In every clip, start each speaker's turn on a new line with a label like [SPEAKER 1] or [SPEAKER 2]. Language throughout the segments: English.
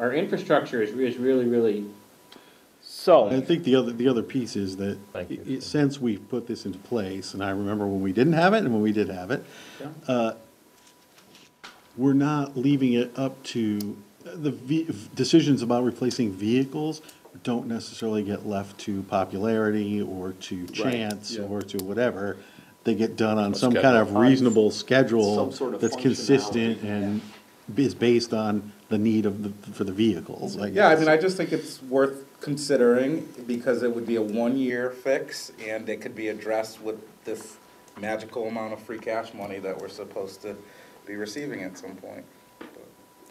[SPEAKER 1] our infrastructure is, is really, really,
[SPEAKER 2] So,
[SPEAKER 3] Oh.
[SPEAKER 4] I think the other, the other piece is that,
[SPEAKER 5] Thank you.
[SPEAKER 4] i- i- since we've put this into place, and I remember when we didn't have it and when we did have it, uh, we're not leaving it up to, the ve- decisions about replacing vehicles don't necessarily get left to popularity or to chance or to whatever. They get done on some kind of reasonable schedule
[SPEAKER 3] Some sort of
[SPEAKER 4] that's
[SPEAKER 3] functionality.
[SPEAKER 4] consistent and is based on the need of the, for the vehicles, I guess.
[SPEAKER 6] Yeah, I mean, I just think it's worth considering because it would be a one-year fix and it could be addressed with this magical amount of free cash money that we're supposed to be receiving at some point.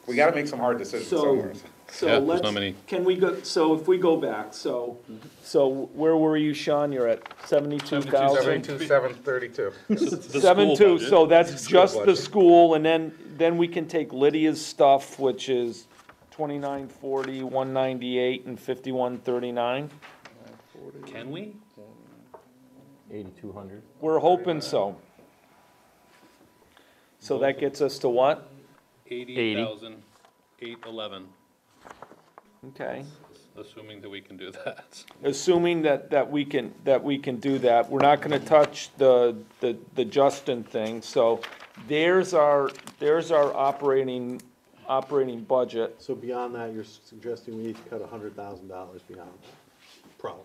[SPEAKER 6] We gotta make some hard decisions
[SPEAKER 2] so,
[SPEAKER 6] somewhere.
[SPEAKER 5] Yeah,
[SPEAKER 2] so
[SPEAKER 5] there's
[SPEAKER 2] let's,
[SPEAKER 5] not many.
[SPEAKER 2] can we go, so if we go back, so, Mm-hmm. so where were you, Sean? You're at seventy-two thousand?
[SPEAKER 6] Seventy-two, seven thirty-two.
[SPEAKER 2] Seven-two, so that's just the
[SPEAKER 6] budget.
[SPEAKER 2] school, and then, then we can take Lydia's stuff, which is twenty-nine forty, one ninety-eight, and fifty-one thirty-nine?
[SPEAKER 5] Can we? Eighty-two hundred.
[SPEAKER 2] We're hoping so. So that gets us to what?
[SPEAKER 5] Eighty thousand, eight eleven,
[SPEAKER 2] Okay.
[SPEAKER 5] assuming that we can do that.
[SPEAKER 2] assuming that, that we can, that we can do that, we're not gonna touch the, the, the Justin thing, so there's our, there's our operating, operating budget.
[SPEAKER 4] So beyond that, you're suggesting we need to cut a hundred thousand dollars beyond that? Probably.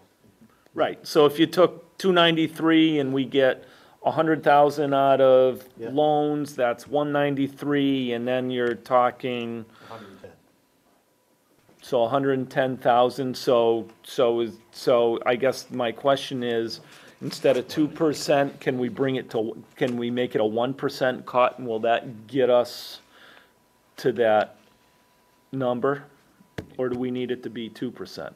[SPEAKER 2] Right, so if you took two ninety-three and we get a hundred thousand out of
[SPEAKER 4] Yeah.
[SPEAKER 2] loans, that's one ninety-three, and then you're talking,
[SPEAKER 4] Hundred and ten.
[SPEAKER 2] so hundred and ten thousand, so, so is, so I guess my question is, instead of two percent, can we bring it to, can we make it a one percent cut, and will that get us to that number? Or do we need it to be two percent?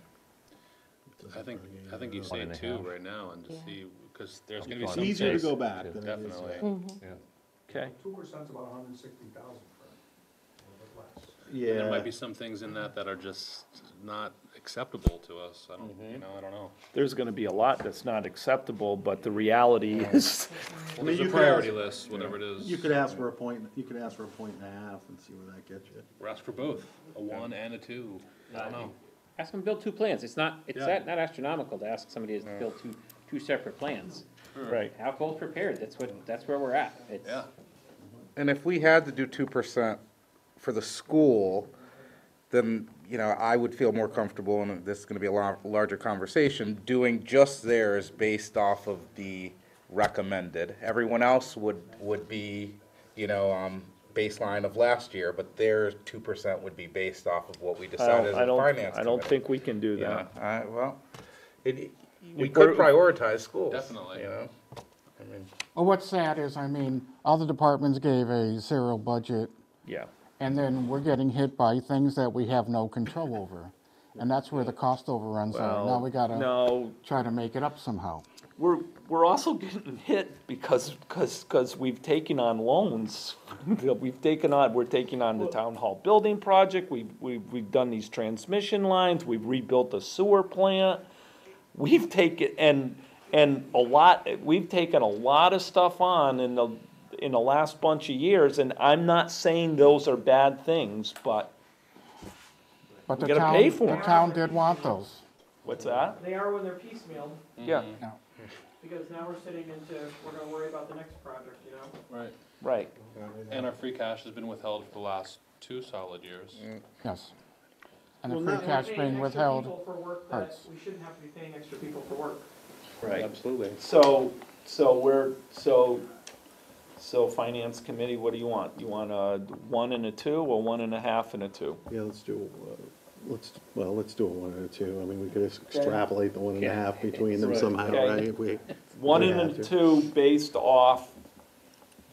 [SPEAKER 5] I think, I think you say two right now and just see, because there's gonna be
[SPEAKER 4] It's
[SPEAKER 5] some things.
[SPEAKER 4] easier to go back than it is.
[SPEAKER 5] Definitely.
[SPEAKER 2] Okay,
[SPEAKER 7] Two percent's about hundred and sixty thousand for it, a little bit less.
[SPEAKER 2] Mm.
[SPEAKER 5] And There might
[SPEAKER 4] Yeah,
[SPEAKER 5] be some things in that that are just not acceptable to us. I don't,
[SPEAKER 4] Mm-hmm.
[SPEAKER 5] you know, I don't know.
[SPEAKER 2] there's gonna be a lot that's not acceptable, but the reality is,
[SPEAKER 5] Well,
[SPEAKER 4] mean,
[SPEAKER 5] there's a
[SPEAKER 4] you could
[SPEAKER 5] priority
[SPEAKER 4] ask-
[SPEAKER 5] list, whatever it is.
[SPEAKER 4] you could ask for a point, you could ask for a point and a half and see where that gets you.
[SPEAKER 5] We're asked for both, a one and a two. I don't know.
[SPEAKER 1] ask them to build two plans, it's not, it's
[SPEAKER 5] Yeah.
[SPEAKER 1] not not astronomical to ask somebody to build two, two separate plans.
[SPEAKER 2] right,
[SPEAKER 1] Have both prepared, that's what, that's where we're at, it's.
[SPEAKER 5] Yeah.
[SPEAKER 6] And if we had to do two percent for the school, then, you know, I would feel more comfortable, and this is gonna be a lo- larger conversation, doing just theirs based off of the recommended. Everyone else would, would be, you know, um, baseline of last year, but their two percent would be based off of what we
[SPEAKER 2] I
[SPEAKER 6] decided
[SPEAKER 2] don't,
[SPEAKER 6] as
[SPEAKER 2] um, I
[SPEAKER 6] a
[SPEAKER 2] don't,
[SPEAKER 6] finance
[SPEAKER 2] I don't
[SPEAKER 6] committee.
[SPEAKER 2] think we can do
[SPEAKER 6] Yeah,
[SPEAKER 2] that.
[SPEAKER 6] I, well, it, we
[SPEAKER 2] If we're-
[SPEAKER 6] could prioritize schools.
[SPEAKER 5] Definitely.
[SPEAKER 6] You know?
[SPEAKER 8] Well, what's sad is, I mean, all the departments gave a zero budget,
[SPEAKER 2] Yeah,
[SPEAKER 8] and then we're getting hit by things that we have no control over. And that's where the cost overruns are. Now we gotta
[SPEAKER 2] no,
[SPEAKER 8] try to make it up somehow.
[SPEAKER 2] We're, we're also getting hit because, because, because we've taken on loans. that We've taken on, we're taking on the town hall building project, we've, we've, we've done these transmission lines, we've rebuilt a sewer plant. We've taken, and, and a lot, we've taken a lot of stuff on in the, in the last bunch of years, and I'm not saying those are bad things, but,
[SPEAKER 8] But the
[SPEAKER 2] gotta pay
[SPEAKER 8] town,
[SPEAKER 2] for
[SPEAKER 8] the
[SPEAKER 2] 'em.
[SPEAKER 8] town did want those.
[SPEAKER 2] what's that?
[SPEAKER 9] They are when they're piecemealed,
[SPEAKER 2] Yeah,
[SPEAKER 9] because now we're sitting into, we're gonna worry about the next project, you know?
[SPEAKER 5] Right.
[SPEAKER 2] right.
[SPEAKER 5] And our free cash has been withheld for the last two solid years.
[SPEAKER 8] Yes. And the
[SPEAKER 4] Well,
[SPEAKER 8] free
[SPEAKER 4] not-
[SPEAKER 8] cash
[SPEAKER 9] We're paying extra
[SPEAKER 8] being withheld.
[SPEAKER 9] people for work that
[SPEAKER 8] hurts.
[SPEAKER 9] We shouldn't have to be paying extra people for work.
[SPEAKER 2] Right.
[SPEAKER 1] Absolutely.
[SPEAKER 2] So, so we're, so, so finance committee, what do you want? You want a one and a two, or one and a half and a two?
[SPEAKER 4] Yeah, let's do, uh, let's, well, let's do a one and a two. I mean, we could extrapolate the one and a half between them
[SPEAKER 2] Right.
[SPEAKER 4] somehow,
[SPEAKER 2] Okay.
[SPEAKER 4] right? If we-
[SPEAKER 2] One
[SPEAKER 4] We
[SPEAKER 2] and
[SPEAKER 4] have
[SPEAKER 2] a
[SPEAKER 4] to.
[SPEAKER 2] two based off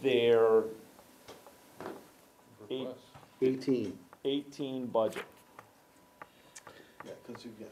[SPEAKER 2] their eight,
[SPEAKER 5] Request.
[SPEAKER 4] Eighteen.
[SPEAKER 2] eighteen budget,
[SPEAKER 4] Yeah, because you've got.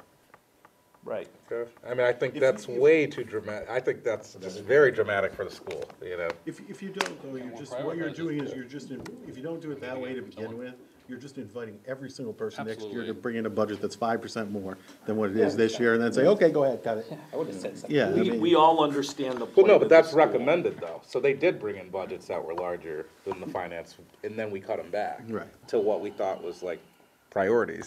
[SPEAKER 2] right?
[SPEAKER 6] Okay. I mean, I think
[SPEAKER 4] If-
[SPEAKER 6] that's
[SPEAKER 4] if-
[SPEAKER 6] way too dramatic. I think that's, that's very dramatic for the school, you know?
[SPEAKER 4] If, if you don't, though, you're
[SPEAKER 5] we'll
[SPEAKER 4] just, what
[SPEAKER 5] prioritize
[SPEAKER 4] you're
[SPEAKER 5] it.
[SPEAKER 4] doing is you're just, in- if you don't do it that way to begin
[SPEAKER 5] Someone-
[SPEAKER 4] with, you're just inviting every single person next year to
[SPEAKER 5] Absolutely.
[SPEAKER 4] bring in a budget that's five percent more than what it is this year, and then say, okay, go ahead, cut it.
[SPEAKER 1] I would've said something.
[SPEAKER 4] Yeah, I
[SPEAKER 2] We,
[SPEAKER 4] mean-
[SPEAKER 2] we all understand the
[SPEAKER 6] Well,
[SPEAKER 2] plight
[SPEAKER 6] no,
[SPEAKER 2] of
[SPEAKER 6] but
[SPEAKER 2] the
[SPEAKER 6] that's
[SPEAKER 2] school.
[SPEAKER 6] recommended though. So they did bring in budgets that were larger than the finance, and then we cut them back.
[SPEAKER 4] Right.
[SPEAKER 6] To what we thought was like priorities.